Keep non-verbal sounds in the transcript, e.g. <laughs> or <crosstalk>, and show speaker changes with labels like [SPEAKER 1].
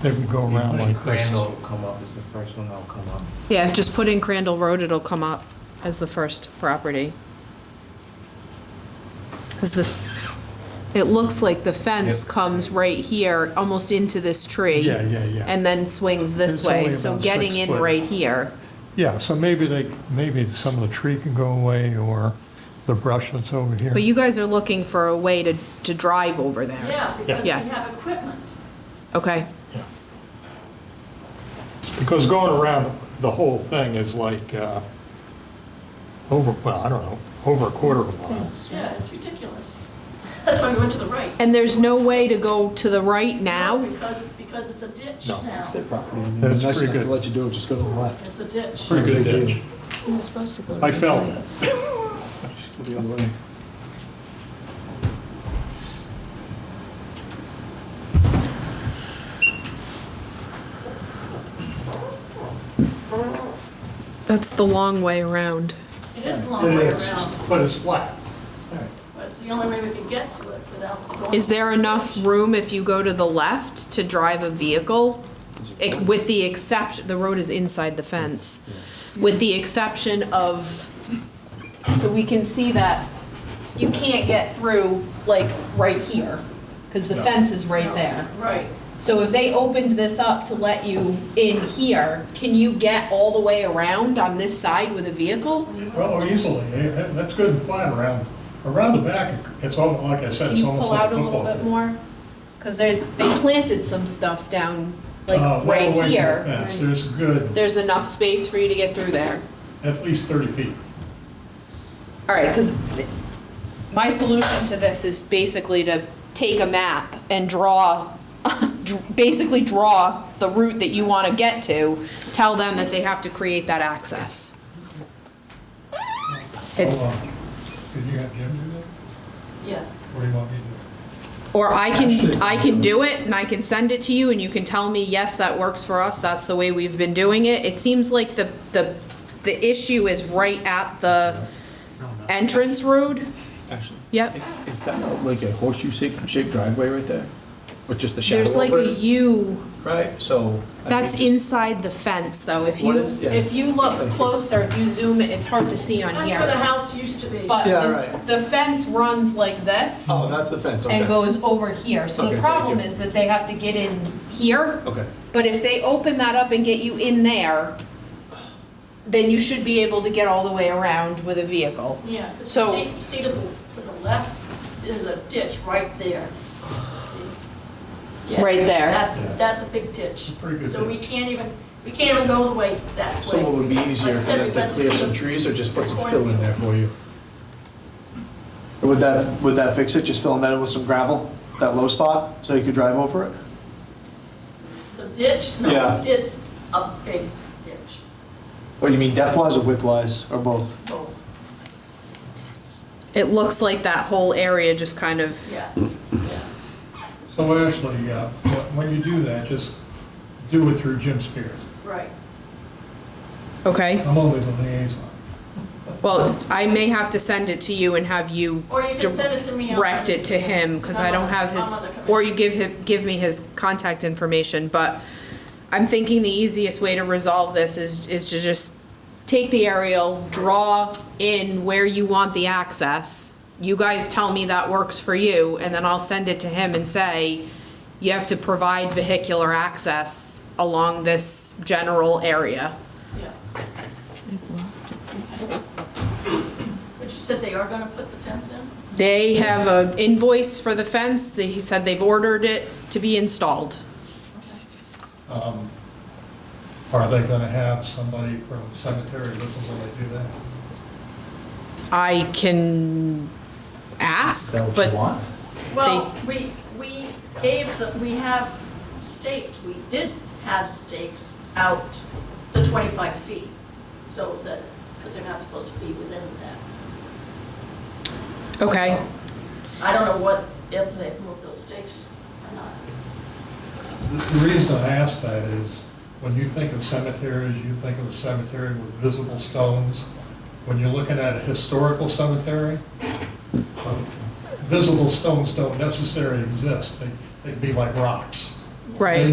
[SPEAKER 1] They would go around like this.
[SPEAKER 2] Crandall will come up is the first one that'll come up.
[SPEAKER 3] Yeah, just put in Crandall Road, it'll come up as the first property. Because the, f- it looks like the fence
[SPEAKER 2] Yep.
[SPEAKER 3] comes right here, almost into this tree.
[SPEAKER 1] Yeah, yeah, yeah.
[SPEAKER 3] And then swings
[SPEAKER 1] It's
[SPEAKER 3] this way,
[SPEAKER 1] only
[SPEAKER 3] so
[SPEAKER 1] about
[SPEAKER 3] getting
[SPEAKER 1] six
[SPEAKER 3] in
[SPEAKER 1] foot.
[SPEAKER 3] right here.
[SPEAKER 1] Yeah, so maybe they, maybe some of the tree can go away or the brush that's over here.
[SPEAKER 3] But you guys are looking for a way to, to drive over there.
[SPEAKER 4] Yeah, because we
[SPEAKER 3] Yeah.
[SPEAKER 4] have equipment.
[SPEAKER 3] Okay,
[SPEAKER 1] Yeah. Because going around the whole thing is like, uh, over, well, I don't know, over a quarter of a mile.
[SPEAKER 4] Yeah, it's ridiculous. <laughs> That's why we went to the right.
[SPEAKER 3] and there's no way to go to the right
[SPEAKER 4] No,
[SPEAKER 3] now?
[SPEAKER 4] Because, because it's a ditch
[SPEAKER 1] No.
[SPEAKER 4] now.
[SPEAKER 5] It's their property.
[SPEAKER 1] That's
[SPEAKER 5] Nice
[SPEAKER 1] pretty
[SPEAKER 5] enough
[SPEAKER 1] good.
[SPEAKER 5] to let you do it, just go to the left.
[SPEAKER 4] It's a ditch.
[SPEAKER 1] Pretty good
[SPEAKER 5] Big
[SPEAKER 1] ditch. I fell in it.
[SPEAKER 5] Just go the other way.
[SPEAKER 3] That's the long way around.
[SPEAKER 4] It is a long
[SPEAKER 1] It
[SPEAKER 4] way
[SPEAKER 1] is,
[SPEAKER 4] around,
[SPEAKER 1] But it's flat.
[SPEAKER 4] but it's the only way we can get to it without going.
[SPEAKER 3] Is there enough room if you go to the left to drive a vehicle? Ex- With the exception, the road is inside the fence, with the exception of, so we can see that you can't get through, like, right here, because the fence is right there.
[SPEAKER 4] Right.
[SPEAKER 3] So if they opened this up to let you in here, can you get all the way around on this side with a vehicle?
[SPEAKER 1] Well, easily, Eh, that- that's good and flat around, around the back, it's all, like I said,
[SPEAKER 3] Can
[SPEAKER 1] it's
[SPEAKER 3] you
[SPEAKER 1] almost
[SPEAKER 3] pull
[SPEAKER 1] like
[SPEAKER 3] out
[SPEAKER 1] a
[SPEAKER 3] a little
[SPEAKER 1] football.
[SPEAKER 3] bit
[SPEAKER 1] field.
[SPEAKER 3] more? Because they, they planted some stuff down,
[SPEAKER 1] Uh,
[SPEAKER 3] like,
[SPEAKER 1] well away
[SPEAKER 3] right
[SPEAKER 1] from the
[SPEAKER 3] here.
[SPEAKER 1] fence. There's a good,
[SPEAKER 3] There's enough space for you to get through there.
[SPEAKER 1] at least 30 feet.
[SPEAKER 3] All right, because my solution to this is basically to take a map and draw, <laughs> dr- basically draw the route that you want to get to, tell them that they have to create that access. It's,
[SPEAKER 1] Hold on. Could you have Jim do that?
[SPEAKER 4] Yeah.
[SPEAKER 1] What do you want me to
[SPEAKER 3] or I can, I can do it and I can send it to you and you can tell me, yes, that works for us, that's the way we've been doing it. It seems like the, the, the issue is right at the
[SPEAKER 2] No, no.
[SPEAKER 3] entrance road.
[SPEAKER 5] Actually.
[SPEAKER 3] Yep.
[SPEAKER 5] Is- Is that a- like a horseshoe shape- shaped driveway right there? With just the shadow
[SPEAKER 3] There's like
[SPEAKER 5] over
[SPEAKER 3] a
[SPEAKER 5] it?
[SPEAKER 3] U
[SPEAKER 5] Right, so. I
[SPEAKER 3] That's
[SPEAKER 5] think
[SPEAKER 3] inside the fence, though. If you,
[SPEAKER 5] What is- yeah.
[SPEAKER 3] if you look closer, if you zoom it, it's hard to see on
[SPEAKER 4] That's where the
[SPEAKER 3] here.
[SPEAKER 4] house used to be.
[SPEAKER 3] But
[SPEAKER 5] Yeah,
[SPEAKER 3] the-
[SPEAKER 5] right.
[SPEAKER 3] the fence runs like this
[SPEAKER 5] just- Oh, that's the fence,
[SPEAKER 3] and
[SPEAKER 5] okay.
[SPEAKER 3] goes over here. So
[SPEAKER 5] Okay,
[SPEAKER 3] the
[SPEAKER 5] thank
[SPEAKER 3] problem
[SPEAKER 5] you.
[SPEAKER 3] is that they have to get in here.
[SPEAKER 5] Okay,
[SPEAKER 3] But if they open that up and get you in there, then you should be able to get all the way around with a vehicle.
[SPEAKER 4] Yeah, 'cause you
[SPEAKER 3] So-
[SPEAKER 4] see, you see to the, to the left, there's a ditch right there. See? Yeah,
[SPEAKER 3] Right there.
[SPEAKER 4] That's, that's a big ditch.
[SPEAKER 1] pretty good
[SPEAKER 4] So we can't even, we can't even go the way that way.
[SPEAKER 5] so what would be
[SPEAKER 4] Like I
[SPEAKER 5] easier for
[SPEAKER 4] said, we
[SPEAKER 5] them to
[SPEAKER 4] went
[SPEAKER 5] clear
[SPEAKER 4] through
[SPEAKER 5] some
[SPEAKER 4] the-
[SPEAKER 5] trees or just put some
[SPEAKER 4] Corn
[SPEAKER 5] fill in
[SPEAKER 4] field.
[SPEAKER 5] there for you? Would that, would that fix it, just filling that in with some gravel, that low spot, so you could drive over it?
[SPEAKER 4] The ditch, no,
[SPEAKER 5] Yeah.
[SPEAKER 4] it's, it's a big ditch,
[SPEAKER 5] Or you mean depth wise or width wise, or both?
[SPEAKER 4] both,
[SPEAKER 3] It looks like that whole area just kind of,
[SPEAKER 4] yeah.
[SPEAKER 1] do? So actually, uh, wh- when you do that, just do it through Jim Spears.
[SPEAKER 4] Right.
[SPEAKER 3] okay?
[SPEAKER 1] I'm only the liaison.
[SPEAKER 3] Well, I may have to send it to you and have you
[SPEAKER 4] Or you can send it to me. I'll
[SPEAKER 3] direct
[SPEAKER 4] send
[SPEAKER 3] it to him, because I don't have
[SPEAKER 4] I'm on the
[SPEAKER 3] his,
[SPEAKER 4] commission.
[SPEAKER 3] or you give him, give me his contact information, but I'm thinking the easiest way to resolve this is, is to just take the aerial, draw in where you want the access. You guys tell me that works for you, and then I'll send it to him and say, you have to provide vehicular access along this general area.
[SPEAKER 4] Yeah. But you said they are gonna put the fence in?
[SPEAKER 3] They have an invoice for the fence, that he said they've ordered it to be installed.
[SPEAKER 1] Um, Are they going to have somebody from cemetery with them when they do that?
[SPEAKER 3] I can ask, but
[SPEAKER 5] want?
[SPEAKER 4] Well, we, we gave, the we have staked, we did have stakes out the 25 feet, so that, because they're not supposed to be within that.
[SPEAKER 3] okay.
[SPEAKER 4] I don't know what, if they've moved those stakes or not.
[SPEAKER 1] The reason I ask that is, when you think of cemeteries, you think of a cemetery with visible stones. When you're looking at a historical cemetery, uh, visible stones don't necessarily exist. They- They'd be like rocks.
[SPEAKER 3] Right.
[SPEAKER 1] They